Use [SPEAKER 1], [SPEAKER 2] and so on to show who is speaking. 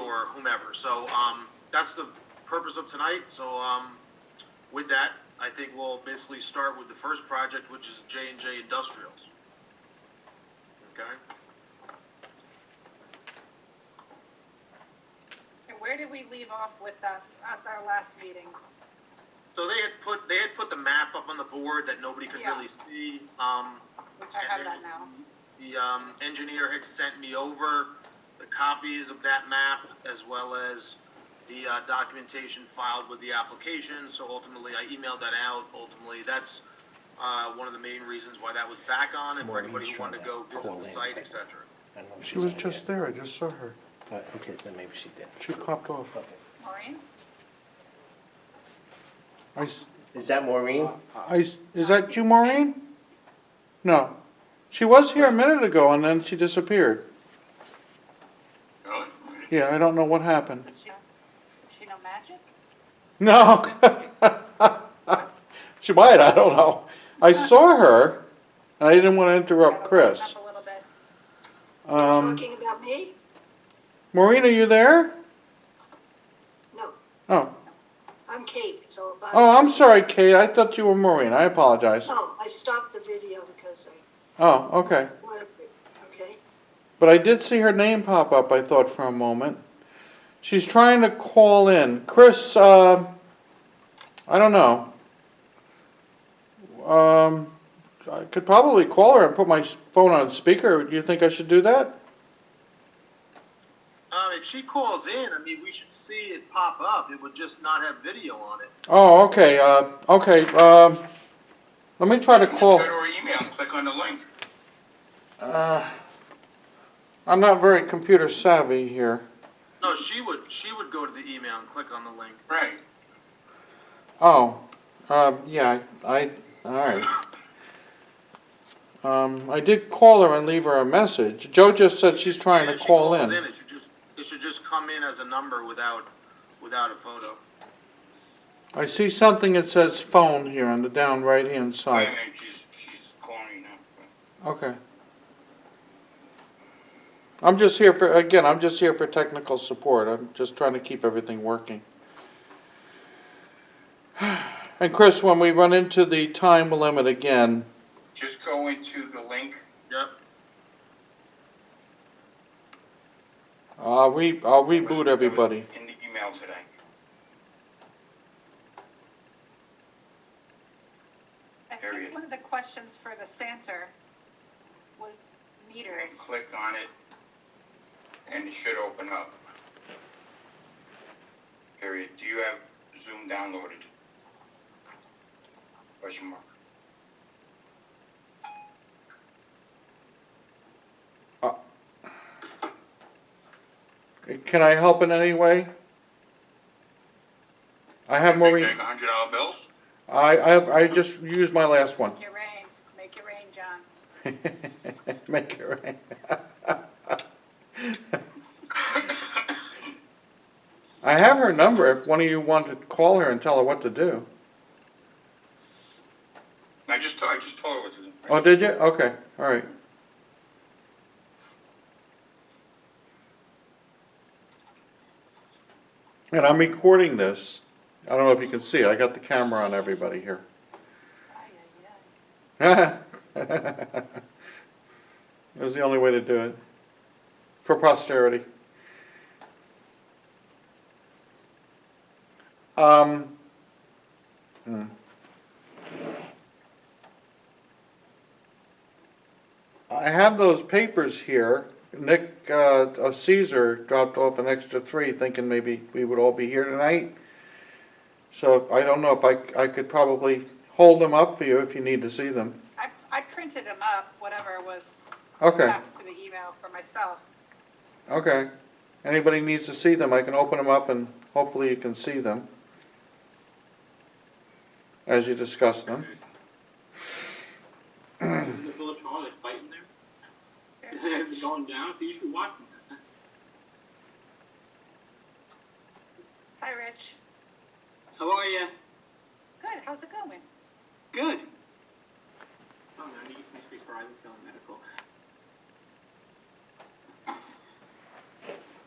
[SPEAKER 1] or whomever. So, um, that's the purpose of tonight. So, um, with that, I think we'll basically start with the first project, which is J and J Industrials. Okay?
[SPEAKER 2] And where did we leave off with that at our last meeting?
[SPEAKER 1] So they had put, they had put the map up on the board that nobody could
[SPEAKER 2] Yeah.
[SPEAKER 1] really see. Um,
[SPEAKER 2] Which I have that now.
[SPEAKER 1] the um, engineer had sent me over the copies of that map as well as the uh, documentation filed with the application. So ultimately, I emailed that out. Ultimately, that's uh, one of the main reasons why that was back on and for
[SPEAKER 3] Maureen's
[SPEAKER 1] anybody who wanted to go
[SPEAKER 3] trying to
[SPEAKER 1] visit
[SPEAKER 3] call
[SPEAKER 1] the
[SPEAKER 3] in.
[SPEAKER 1] site, et cetera.
[SPEAKER 3] I don't know if
[SPEAKER 4] She
[SPEAKER 3] she's
[SPEAKER 4] was
[SPEAKER 3] on
[SPEAKER 4] just
[SPEAKER 3] yet.
[SPEAKER 4] there, I just saw her.
[SPEAKER 3] Uh, Okay, then maybe she did.
[SPEAKER 4] She popped off.
[SPEAKER 3] Okay.
[SPEAKER 2] Maureen?
[SPEAKER 4] I, s-
[SPEAKER 3] Is that Maureen?
[SPEAKER 4] I s- is that you, Maureen? No. She was here a minute ago and then she disappeared. Yeah, I don't know what happened.
[SPEAKER 2] Is she, is she no magic?
[SPEAKER 4] No. She might, I don't know. I saw her, and I didn't want to interrupt Chris.
[SPEAKER 2] Up a little bit.
[SPEAKER 4] Um,
[SPEAKER 5] Talking about me?
[SPEAKER 4] Maureen, are you there?
[SPEAKER 5] No,
[SPEAKER 4] Oh,
[SPEAKER 5] I'm Kate, so. if I-
[SPEAKER 4] oh, I'm sorry, Kate, I thought you were Maureen, I apologize.
[SPEAKER 5] No, I stopped the video because I
[SPEAKER 4] Oh, okay.
[SPEAKER 5] wanted to, okay?
[SPEAKER 4] But I did see her name pop up, I thought for a moment. She's trying to call in. Chris, um, I don't know. Um, I could probably call her and put my s- phone on speaker. Do you think I should do that?
[SPEAKER 1] Um, if she calls in, I mean, we should see it pop up. It would just not have video on it.
[SPEAKER 4] Oh, okay, uh, okay, um, let me try to call.
[SPEAKER 6] Go to her email, click on the link.
[SPEAKER 4] Uh, I'm not very computer savvy here.
[SPEAKER 1] No, she would, she would go to the email and click on the link.
[SPEAKER 6] Right.
[SPEAKER 4] Oh, um, yeah, I, all right. Um, I did call her and leave her a message. Joe just said she's trying
[SPEAKER 1] And
[SPEAKER 4] to
[SPEAKER 1] if she
[SPEAKER 4] call
[SPEAKER 1] calls
[SPEAKER 4] in.
[SPEAKER 1] It should just, it should just come in as a number without, without a photo.
[SPEAKER 4] I see something that says phone here on the down right-hand
[SPEAKER 6] Wait a
[SPEAKER 4] side.
[SPEAKER 6] minute, she's, she's calling now.
[SPEAKER 4] Okay. I'm just here for, again, I'm just here for technical support. I'm just trying to keep everything working. And Chris, when we run into the time limit again,
[SPEAKER 6] Just go into the link.
[SPEAKER 1] Yep.
[SPEAKER 4] uh, we, I'll
[SPEAKER 6] that was-
[SPEAKER 4] reboot
[SPEAKER 6] that was
[SPEAKER 4] everybody.
[SPEAKER 6] In the email today.
[SPEAKER 2] I
[SPEAKER 6] Period.
[SPEAKER 2] think one of the questions for the Santa was
[SPEAKER 6] And
[SPEAKER 2] meters.
[SPEAKER 6] click on it. And it should open up. Period. Do you have Zoom downloaded? Question mark.
[SPEAKER 4] Can I help in any way? I have Maureen,
[SPEAKER 6] Make a hundred dollar bills?
[SPEAKER 4] I, I, I just used my last one.
[SPEAKER 2] Make it rain, make it rain, John.
[SPEAKER 4] Make it rain. I have her number if one of you want to call her and tell her what to do.
[SPEAKER 6] I just, I just told her what to do.
[SPEAKER 4] Oh, did you? Okay, all right. And I'm recording this. I don't know if you can see it. I got the camera on everybody here.
[SPEAKER 2] Ay, ay, ay.
[SPEAKER 4] It was the only way to do it. For posterity. Um. hmm. I have those papers here. Nick, uh, of Caesar dropped off an extra three thinking maybe we would all be here tonight. So I don't know if I, I could probably hold them up for you if you need to see them.
[SPEAKER 2] I, I printed them up, whatever was
[SPEAKER 4] Okay.
[SPEAKER 2] attached to the email for myself.
[SPEAKER 4] Okay. Anybody needs to see them, I can open them up and hopefully you can see them as you discuss them.
[SPEAKER 7] in the village hall, they're fighting there. As it's going down, so you should be watching this.
[SPEAKER 2] Hi, Rich.
[SPEAKER 7] How are you?
[SPEAKER 2] Good, how's it going?
[SPEAKER 7] Good. Oh, no, I need to make sure he's horizon feeling medical.